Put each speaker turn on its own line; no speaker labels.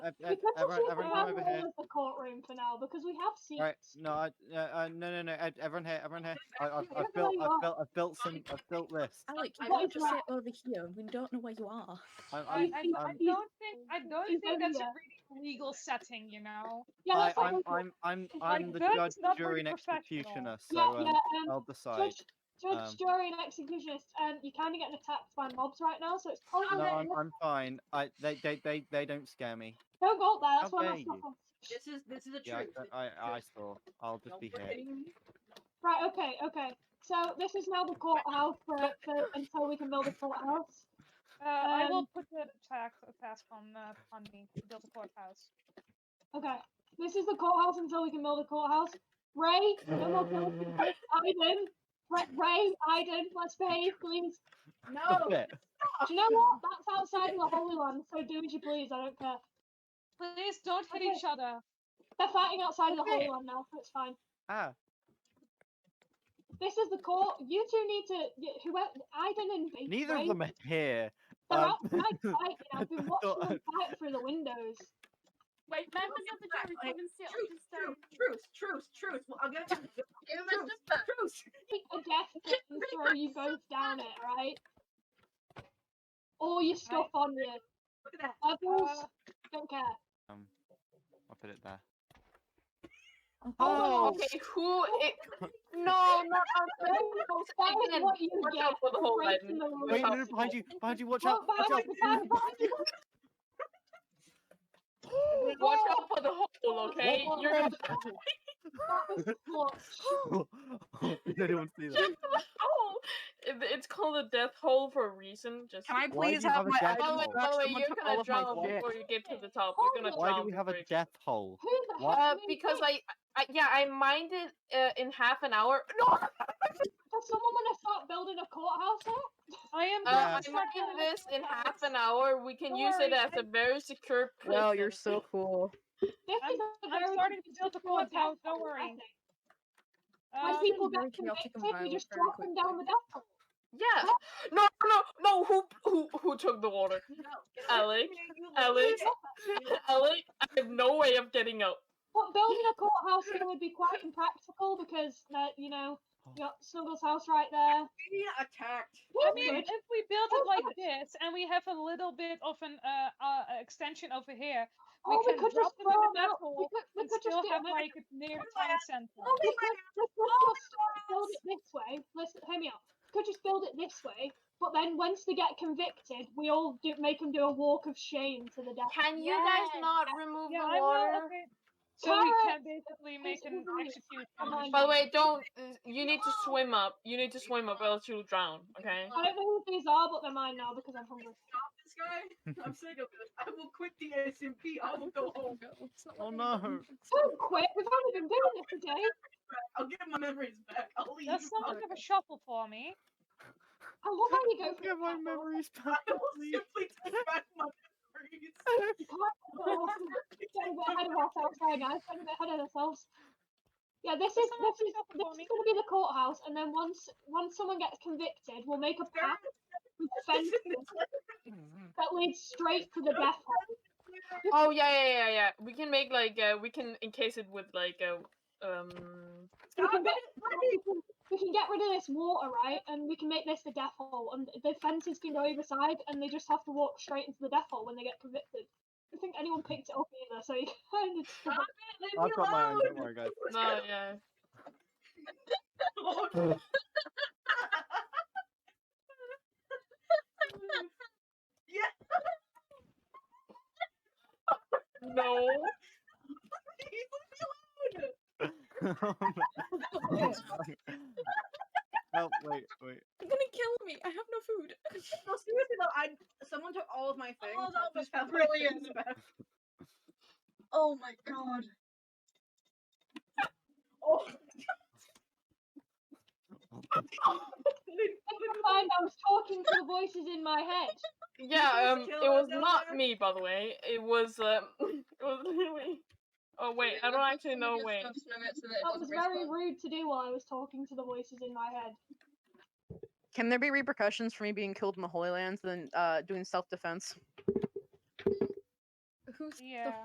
Ev- ev-
Because of
uh, everyone,
the
everyone come
ground
over here.
rule of the courtroom for now, because we have seats.
All right, no, I, uh, uh, no, no, no, ev- everyone here, everyone here. I, I've, I've
Everyone
built,
up.
I've built, I've built some, I've built this.
Alec, you
I-
can't
what
just
is
sit over here. We don't know where you are.
I'm,
I,
I'm,
Alright,
I, I
I'm,
don't think I
He's
don't think
over
that's a
there.
really legal setting, you know.
Yeah,
I,
that's fine.
I'm, I'm, I'm,
like
I'm the
that,
judge,
it's not
jury,
very
and executioner, so
yeah,
um,
yeah. Um,
I'll decide.
judge, judge,
um,
jury, and executionist. Um, you're kind of getting attacked by mobs right now, so it's probably
No, I'm, I'm fine. I, they, they, they, they don't scare me.
don't go up there. That's
How
why
dare
my stuff
you.
on.
This is this is the
Yeah,
truth.
I, I, I saw. I'll just be here.
Right. Okay. Okay. So this is now the courthouse for, for until we can build a courthouse.
Uh, I will
Um,
put the attack a task on uh, on me to build a courthouse.
Okay. This is the courthouse until we can build a courthouse. Ray, no more killing. Iden, Ray, Ray, Iden, let's behave, please.
No,
Stop it.
Do you know what? That's outside of the Holy Land, so do as you please. I don't care.
Please don't hit each other.
They're fighting outside of the Holy Land now, so it's fine.
Ah,
This is the court. You two need to. y- Who? Iden and B-
neither
Ray,
of them are here.
They're
um,
outside fighting. I've been watching
thought-
them fight through the windows.
Wait, members of the jury, come and sit on
truth,
this
truth,
stone.
truth, truth, truth. Well, I'll give it back. Give it back. Truth.
Pick a death pit and throw you both down it, right? All your stuff on you.
Look at that.
Uh,
Others don't care.
Um, I'll put it there.
Oh, okay, who? It, no, not
That is
Again,
what you
Watch
get.
out for the whole
Breaking
button.
the rules.
Wait, no,
out.
no, behind you, behind you, watch
Well,
out, watch
but
out.
I like the fact
Watch out for the hole, okay?
What-
You're not
that that was clutch.
Oh, Did anyone see that?
Just the hole. It- it's called a death hole for a reason. Just
Can I
Why do
please
you
have
have a
my
jacket
items
Oh wait,
on?
back?
oh wait,
Someone
you're
took
gonna
all of my
drown
shit.
before you get to the top. You're gonna
Why
drown
do we have a
before you-
death hole?
Who the hell?
What?
Uh,
made
because
this?
I, I, yeah, I mined it uh, in half an hour. No,
Does someone want to start building a courthouse here?
I am.
uh,
Yes.
I mined this in half
Uh,
an hour. We can
Don't
use it
worry,
as a very secure. Prison.
Wow, you're so cool.
This
I'm-
is a
I'm
very
starting to build a
secure
courthouse,
death
don't
hole, I
worry.
think.
Um,
When people
very
get
chaotic
convicted, you just
environment,
drop
very
them down the death hole.
Yeah. No, no, no. Who, who, who took the water?
No.
Alec,
You
Alex,
look
Alec, I have no way of getting out.
But building a courthouse here would be quite impractical because, uh, you know,
Oh.
you got Snuggles' house right there.
being attacked.
I
That's
mean,
good.
if we build
Oh,
it like
God.
this, and we have a little bit of an uh, uh extension over here,
Oh,
we
we
can
could
drop
just
them
throw
in the
'em
death
out. We
hole
could, we
and
could just
still
get
have
them in-
like Oh, a near town
Oh
center.
we could, we could just build it this way. Listen, hear me out. We could just build it this way. But then once they get convicted, we all do, make them do a walk of shame to the death.
Can you guys
Yes.
not remove
Yeah,
the
I know.
water?
Okay. So we can
Carrots!
basically make an
Absolutely.
execution.
Come on.
By the way, don't. You need to swim up. You need to swim up, else you'll drown. Okay.
I don't know who these are, but they're mine now because I'm hungry.
This guy. I'm sick of it. I will quit the SMP. I will go home.
Oh no.
Don't quit. We've only been doing this a day.
I'll get my memories back. I'll leave.
That's something of a shuffle for me.
I love how you go for
Get my
it.
memories
I
back,
will
please.
simply take back my memories.
You can't getting a bit ahead of ourselves there, guys. Getting a bit ahead of ourselves. Yeah, this is
Someone
this
pick
is
up
this
for
is
me.
going to be the courthouse, and then once once someone gets convicted, we'll make a path with fences that leads straight to the death hole.
Oh yeah, yeah, yeah, yeah. We can make like uh, we can encase it with like a um.
We can, get, we, can, we can get rid of this water, right? And we can make this the death hole, and the fences can go either side, and they just have to walk straight into the death hole when they get convicted. I don't think anyone picked it up either, so you kind of just-
I've got my own, don't worry, guys.
No, yeah. No.
oh, wait, wait.
You're gonna kill me. I have no food.
No, seriously though, I someone took all of my things.
Oh, that
I
was
just have my
brilliant.
things back.
Oh my god.
Oh,
I couldn't find I was talking to the voices in my head.
Yeah, um,
Please
it
kill
was
us out
not
there.
me, by the way. It was um, it was literally. Oh wait, I don't actually know. Wait,
That was very rude to do while I was talking to the voices in my head.
Can there be repercussions for me being killed in the Holy Lands and then uh, doing self defense?
Who's the
Yeah.